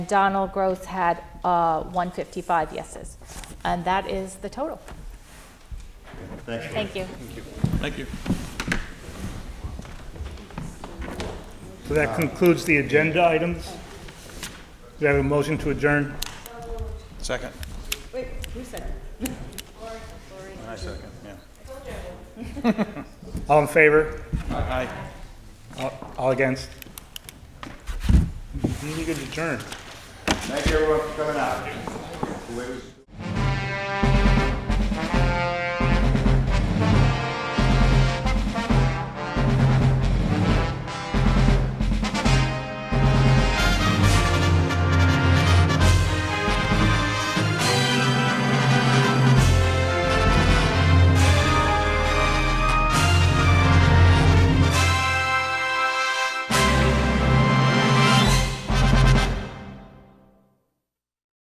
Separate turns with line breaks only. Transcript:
Donald Gross had uh, 155 yeses. And that is the total.
Thank you.
Thank you.
Thank you.
So that concludes the agenda items. Do I have a motion to adjourn?
Second.
Wait, who said that?
I second, yeah.
All in favor?
Aye.
All- All against? You need to adjourn.
Thank you everyone for coming out. Whoever's-